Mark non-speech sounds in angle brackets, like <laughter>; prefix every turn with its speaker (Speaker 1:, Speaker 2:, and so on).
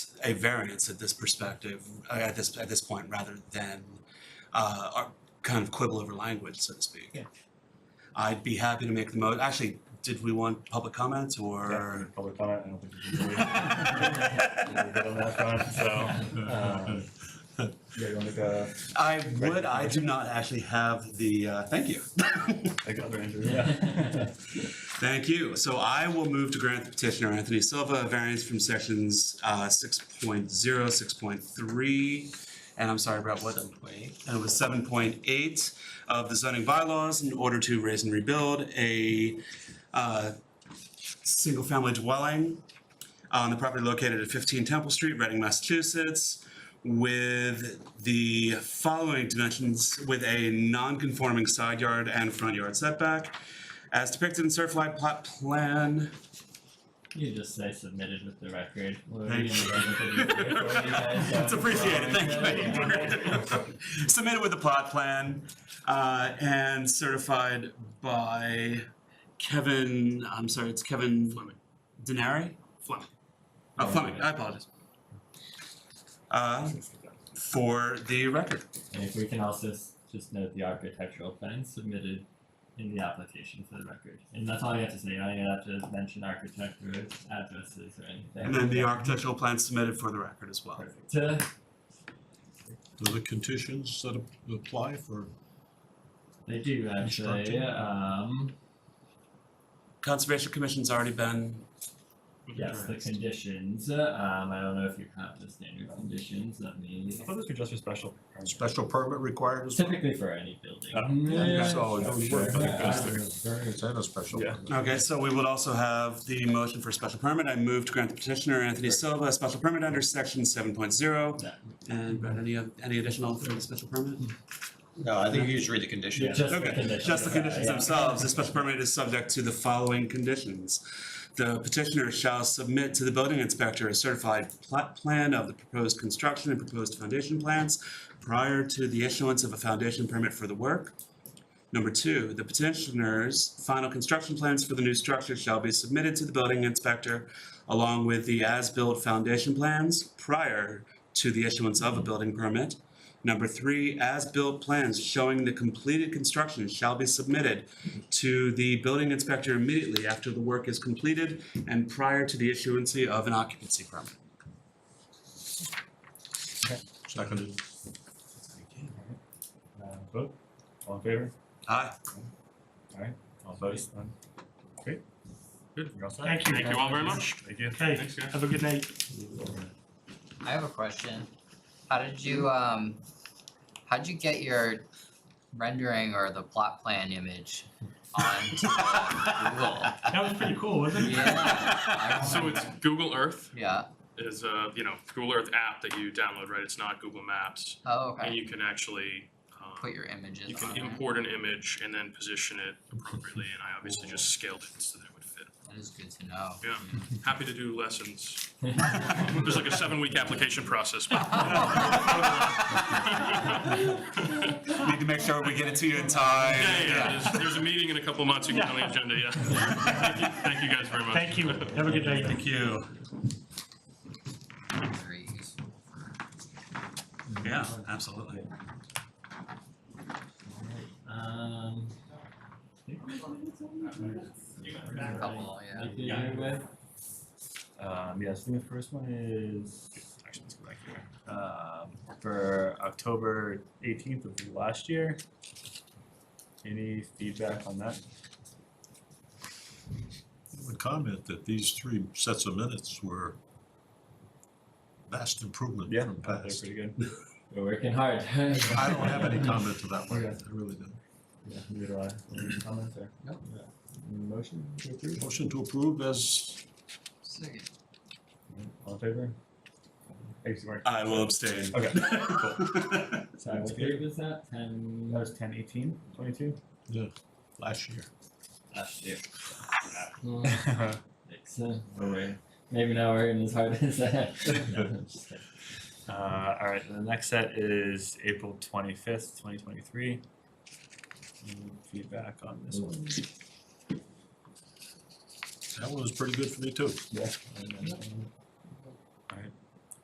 Speaker 1: a variance at this perspective, uh, at this, at this point, rather than uh, ar- kind of quibble over language, so to speak.
Speaker 2: Yeah.
Speaker 1: I'd be happy to make the mo, actually, did we want public comment or?
Speaker 2: Public comment, I don't think we can really. we're good on that front, so, um, <laughs> yeah, you wanna make a,
Speaker 1: <laughs> I would, I do not actually have the, uh, thank you. <laughs>
Speaker 2: make another entry? <laughs>
Speaker 1: Thank you. So I will move to grant the petitioner Anthony Silva a variance from sections uh, 6.0, 6.3, and I'm sorry about what, and it was 7.8 of the zoning bylaws in order to raise and rebuild a uh, single-family dwelling on the property located at 15 Temple Street, Reading, Massachusetts, with the following dimensions, with a non-conforming side yard and front yard setback, as depicted in Surfline plot plan.
Speaker 3: You just say submitted with the record.
Speaker 1: Thank you. <laughs> It's appreciated, thank <laughs> you. Submitted with the plot plan, uh, and certified by Kevin, I'm sorry, it's Kevin Fleming. Denari? Fleming. Oh, Fleming, I apologize. Uh, for the record.
Speaker 3: <laughs> And if we can also s- just note the architectural plan submitted in the application for the record. And that's all you have to say, you don't even have to mention architect or addresses or anything.
Speaker 1: And then the architectural plan submitted for the record as well.
Speaker 3: Perfect. Uh,
Speaker 4: Are the conditions that ap- apply for,
Speaker 3: They do actually,
Speaker 4: Instructing.
Speaker 3: um,
Speaker 1: Conservation Commission's already been.
Speaker 3: yes, the conditions, um, I don't know if you have the standard conditions, let me.
Speaker 2: I thought this was just for special. permit.
Speaker 4: special permit required as well?
Speaker 3: Typically for any building.
Speaker 1: Oh,
Speaker 2: Yeah.
Speaker 4: So,
Speaker 2: Yeah,
Speaker 4: no, you
Speaker 2: sure.
Speaker 4: wouldn't think that's the variance and a special
Speaker 2: Yeah.
Speaker 4: permit.
Speaker 1: Okay, so we will also have the motion for a special permit. I move to grant the petitioner Anthony Silva a special permit under section seven point zero.
Speaker 3: Yeah.
Speaker 1: And Brad, any, oth- any additional for the special permit?
Speaker 5: No, I think you just read the conditions.
Speaker 3: Just the
Speaker 1: Okay,
Speaker 3: conditions.
Speaker 1: just the conditions
Speaker 3: Yeah.
Speaker 1: themselves. The special permit is subject to the following conditions. The petitioner shall submit to the building inspector a certified plot plan of the proposed construction and proposed foundation plans prior to the issuance of a foundation permit for the work. Number two, the petitioner's final construction plans for the new structure shall be submitted to the building inspector along with the as-built foundation plans prior to the issuance of a building permit. Number three, as-built plans showing the completed construction shall be submitted to the building inspector immediately after the work is completed and prior to the issuance of an occupancy permit.
Speaker 4: Seconded.
Speaker 2: Uh, vote, all in favor,
Speaker 1: Aye.
Speaker 2: all opposed, none, great. Good, you're all set.
Speaker 6: Thank you. Thank you all very much.
Speaker 2: Thank you.
Speaker 6: Thanks, have a good night.
Speaker 5: I have a question. How did you, um, how'd you get your rendering or the plot
Speaker 6: <laughs>
Speaker 5: plan image onto Google?
Speaker 6: That was pretty cool, wasn't it?
Speaker 5: Yeah, I
Speaker 6: So
Speaker 5: remember. <laughs>
Speaker 6: it's Google Earth
Speaker 5: Yeah,
Speaker 6: is a, you know, Google Earth app that you download, right? It's not Google Maps.
Speaker 5: oh,
Speaker 6: And
Speaker 5: okay,
Speaker 6: you can actually,
Speaker 5: put
Speaker 6: um,
Speaker 5: your images
Speaker 6: you
Speaker 5: on
Speaker 6: can
Speaker 5: there,
Speaker 6: import an image and then position it appropriately. And I obviously just scaled it so that it would fit.
Speaker 5: that is good to know.
Speaker 6: Yeah. Happy to do lessons. <laughs> There's like a seven-week application
Speaker 5: <laughs>
Speaker 6: process. but-
Speaker 1: Need to make sure we get it to you in time.
Speaker 6: Yeah, yeah, yeah. uh, There's, there's a meeting in a couple months. You can get on the agenda, yeah. Thank you, thank you guys very much. <laughs> Thank you.
Speaker 3: Have a good night.
Speaker 1: Thank you.
Speaker 5: Very useful for.
Speaker 1: Yeah, absolutely.
Speaker 3: Um.
Speaker 5: Couple, yeah.
Speaker 3: Like, you're with-
Speaker 2: Um, yes, I think the first one is, actually, let's go back here. Um, for October eighteenth of last year. Any feedback on that?
Speaker 4: I would comment that these three sets of minutes were vast improvement
Speaker 2: Yeah,
Speaker 4: from
Speaker 2: I thought they were
Speaker 4: past.
Speaker 2: pretty good.
Speaker 3: We're working hard.
Speaker 4: I don't
Speaker 3: <laughs>
Speaker 4: have any comment to that one, I really don't.
Speaker 2: Yeah, neither do I. Any comments or?
Speaker 5: Nope.
Speaker 2: Yeah. Any Motion to approve?
Speaker 4: Motion to approve as,
Speaker 5: Second.
Speaker 2: All in favor? Thanks, Mark.
Speaker 1: I will abstain.
Speaker 2: Okay,
Speaker 3: Sorry, what date was that? Ten
Speaker 2: That was ten eighteen, twenty-two? <laughs>
Speaker 4: yeah, last year. Uh,
Speaker 3: last year.
Speaker 2: All right,
Speaker 3: Oh, Six, uh, we're- Maybe now we're in as hard as that. No,
Speaker 4: <laughs>
Speaker 3: I'm just kidding.
Speaker 2: Uh, all right, the next set is April twenty-fifth, twenty twenty-three. Feedback on this one?
Speaker 4: That one was pretty good for me too.
Speaker 2: Yeah. And then, um,